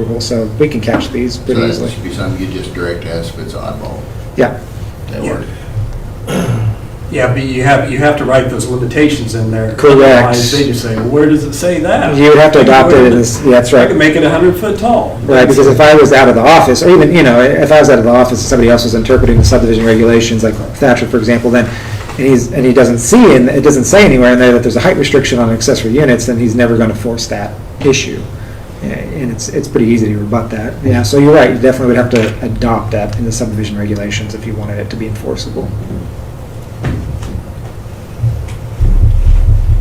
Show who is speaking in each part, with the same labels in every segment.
Speaker 1: approval, so we can catch these
Speaker 2: So
Speaker 1: pretty
Speaker 2: that
Speaker 1: easily.
Speaker 2: should be something you just direct us if it's oddball.
Speaker 1: Yeah,
Speaker 2: That work?
Speaker 3: Yeah, but you have, you have to write those limitations in there.
Speaker 1: Correct.
Speaker 3: Otherwise, They just say, well, where does it say that?
Speaker 1: you would have to adopt it, in this- yeah, that's
Speaker 3: I
Speaker 1: right.
Speaker 3: can make it 100 foot tall.
Speaker 1: Right, because if I was out of the office, or even, you know, if I was out of the office and somebody else was interpreting the subdivision regulations, like Thatcher, for example, then, and he's, and he doesn't see, and it doesn't say anywhere in there that there's a height restriction on accessory units, then he's never gonna force that issue. Yeah, And it's, it's pretty easy to rebut that, yeah, so you're right, you definitely would have to adopt that in the subdivision regulations if you wanted it to be enforceable.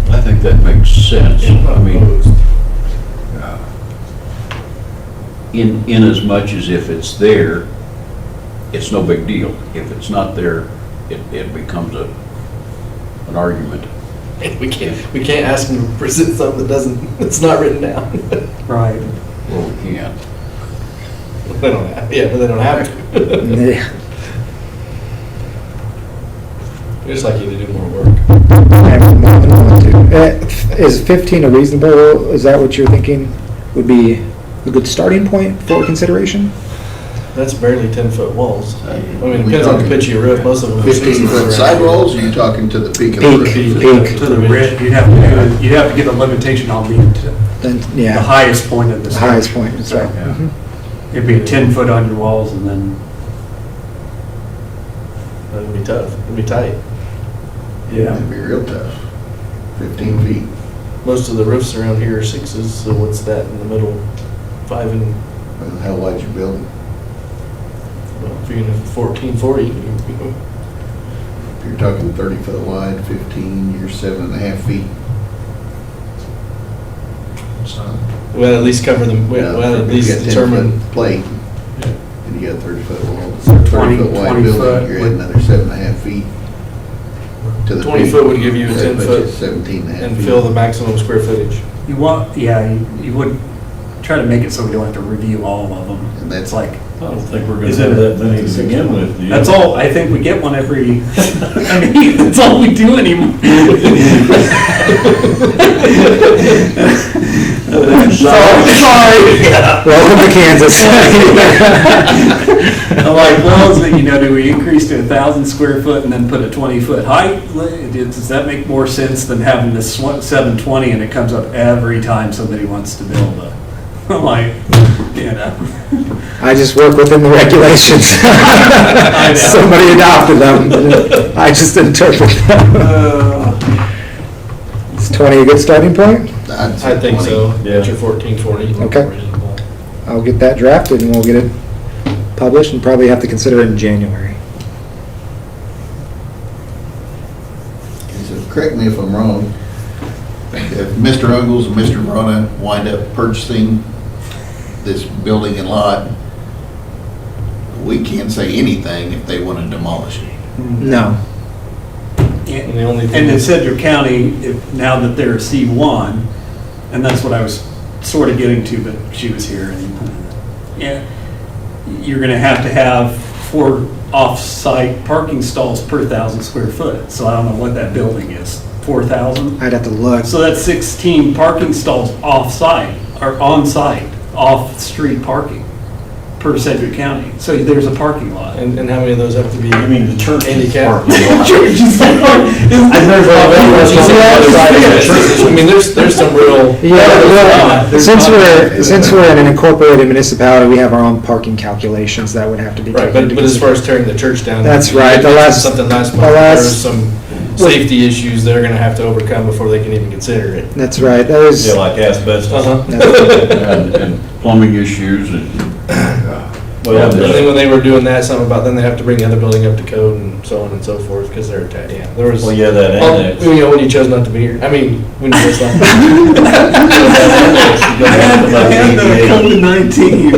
Speaker 4: I think that makes sense. I mean, uh, in, in as much as if it's there, it's no big deal. If it's not there, it, it becomes a, an argument.
Speaker 5: We can't, we can't ask them to present something that doesn't, that's not written down.
Speaker 3: Right.
Speaker 4: Well, we can't.
Speaker 5: They don't have, yeah, but they don't have to.
Speaker 1: Yeah,
Speaker 5: We just like you to do more work.
Speaker 1: I have more than one, too. Eh, Is fifteen a reasonable, is that what you're thinking would be a good starting point for consideration?
Speaker 5: That's barely ten foot walls. I mean, it
Speaker 2: We
Speaker 5: depends on
Speaker 2: talking
Speaker 5: the pitch of your roof, most of them. are
Speaker 2: Fifteen
Speaker 5: 16
Speaker 2: foot
Speaker 5: around.
Speaker 2: sidewalls, or you talking to the peak of the
Speaker 1: Peak,
Speaker 2: roof?
Speaker 1: peak,
Speaker 3: To the ridge, you'd have to, do- you'd have to get a limitation on being t-
Speaker 1: then,
Speaker 3: the
Speaker 1: yeah,
Speaker 3: highest point of the
Speaker 1: the
Speaker 3: structure.
Speaker 1: highest point, that's right.
Speaker 4: Yeah.
Speaker 1: Mhm.
Speaker 3: It'd be 10 foot on your walls and then,
Speaker 5: It'd be tough, it'd be tight.
Speaker 3: yeah.
Speaker 2: That'd be real tough. Fifteen feet.
Speaker 5: Most of the roofs around here are sixes, so what's that in the middle? Five and,
Speaker 2: Well, How wide's your building?
Speaker 5: well, if you're gonna fourteen forty, you-
Speaker 2: If you're talking thirty foot wide, fifteen, you're seven and a half feet. So,
Speaker 5: we gotta at least cover them, we gotta at
Speaker 2: if
Speaker 5: least
Speaker 2: you got 10
Speaker 5: determine.
Speaker 2: foot Plate, and you got thirty foot wall, thirty foot
Speaker 3: 20
Speaker 2: wide building,
Speaker 3: foot.
Speaker 2: you're at another seven and a half feet. to the
Speaker 5: 20
Speaker 2: peak.
Speaker 5: foot would give you a
Speaker 2: That
Speaker 5: 10
Speaker 2: puts
Speaker 5: foot
Speaker 2: you Seventeen and a half.
Speaker 5: And
Speaker 2: feet.
Speaker 5: fill the maximum square footage.
Speaker 3: You want, yeah, you- you would try to make it so we don't have to review all of them.
Speaker 2: And that's-
Speaker 3: It's like,
Speaker 6: I don't think we're gonna
Speaker 3: Is it-
Speaker 6: have that many to begin with, do you?
Speaker 3: that's all, I think we get one every, I mean, that's all we do anymore. Sorry.
Speaker 1: Oh, Welcome to Kansas.
Speaker 3: I'm like, well, is it, you know, do we increase to a thousand square foot and then put a twenty foot height? Does does that make more sense than having this seven twenty and it comes up every time somebody wants to build a? I'm like, you know,
Speaker 1: I just work within the regulations.
Speaker 3: know.
Speaker 1: Somebody adopted them, I just interpret them.
Speaker 3: uh,
Speaker 1: Is twenty a good starting point?
Speaker 2: I'd say
Speaker 5: I think
Speaker 2: 20.
Speaker 5: so.
Speaker 6: Yeah.
Speaker 5: At your fourteen forty.
Speaker 1: Okay. I'll get that drafted and we'll get it published and probably have to consider it in January.
Speaker 2: So correct me if I'm wrong, if Mr. Ungles and Mr. Verona wind up purchasing this building and lot, we can't say anything if they want to demolish it.
Speaker 1: No,
Speaker 3: and-
Speaker 5: And the only thing.
Speaker 3: And in Sedgwick County, if, now that they're a C1, and that's what I was sort of getting to, but she was here and, yeah, you're gonna have to have four off-site parking stalls per thousand square foot, so I don't know what that building is, 4,000?
Speaker 1: I'd have to look.
Speaker 3: So that's 16 parking stalls off-site, or on-site, off-street parking per Sedgwick County. So there's a parking lot.
Speaker 5: And, and how many of those have to be?
Speaker 6: I mean, the church is
Speaker 5: Handicap.
Speaker 6: part of it.
Speaker 5: I mean, there's, there's some real.
Speaker 1: Yeah,
Speaker 5: There's
Speaker 1: well, since
Speaker 5: not-
Speaker 1: we're, since we're in an incorporated municipality, we have our own parking calculations that would have to be
Speaker 5: Right,
Speaker 1: taken
Speaker 5: but,
Speaker 1: into
Speaker 5: but as far as tearing the church down.
Speaker 1: That's
Speaker 5: you
Speaker 1: right, the
Speaker 5: mentioned
Speaker 1: last-
Speaker 5: Something last
Speaker 1: the
Speaker 5: month,
Speaker 1: last-
Speaker 5: there's some safety issues they're gonna have to overcome before they can even consider it.
Speaker 1: That's right, that is.
Speaker 6: Yeah, like asbestos.
Speaker 5: Uh-huh.
Speaker 4: And and plumbing issues and,
Speaker 6: Well,
Speaker 5: And then
Speaker 6: the-
Speaker 5: when they were doing that, something about, then they have to bring the other building up to code and so on and so forth, because they're attached, yeah, there was.
Speaker 6: well, yeah, that Oh,
Speaker 5: Well,
Speaker 6: annex.
Speaker 5: Oh, You know, when you chose not to be here, I mean, when you chose not.
Speaker 3: I had I had to come to 19, you know?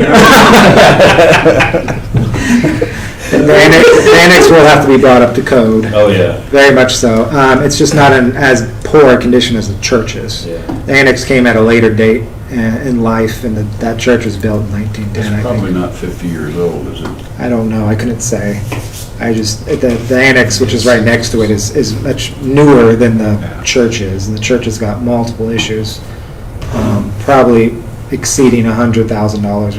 Speaker 1: The annex, the annex will have to be brought up to code,
Speaker 6: Oh, yeah.
Speaker 1: very much so. Um, it's just not in as poor a condition as the church is.
Speaker 6: Yeah.
Speaker 1: The annex came at a later date uh, in life, and the, that church was built in
Speaker 4: it's
Speaker 1: 1910, I
Speaker 4: probably
Speaker 1: think.
Speaker 4: not 50 years old, is it?
Speaker 1: I don't know, I couldn't say. I just, the, the annex, which is right next to it, is, is much newer than the church is, and the church has got multiple issues. Um, Probably exceeding $100,000 worth